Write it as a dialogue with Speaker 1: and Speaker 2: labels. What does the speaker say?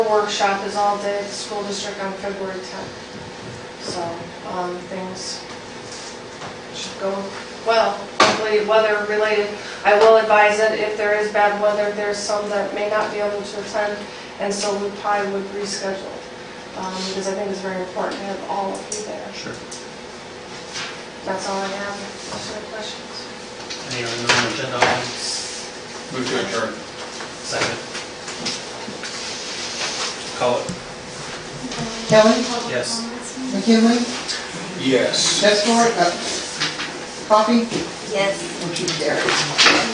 Speaker 1: workshop is all day at the school district on February 10th. So, um, things should go well, hopefully weather related. I will advise that if there is bad weather, there's some that may not be able to attend, and so we probably would reschedule. um, Because I think it's very important to have all of you there.
Speaker 2: Sure.
Speaker 1: That's all I have. Any questions?
Speaker 2: Any other non-agenda items?
Speaker 3: Move to adjourn.
Speaker 2: Second. Call it.
Speaker 4: Kelly,
Speaker 2: Yes.
Speaker 4: McKinley,
Speaker 3: Yes.
Speaker 4: Chessford, uh, Coffee,
Speaker 5: Yes.
Speaker 4: and Keith Garrett.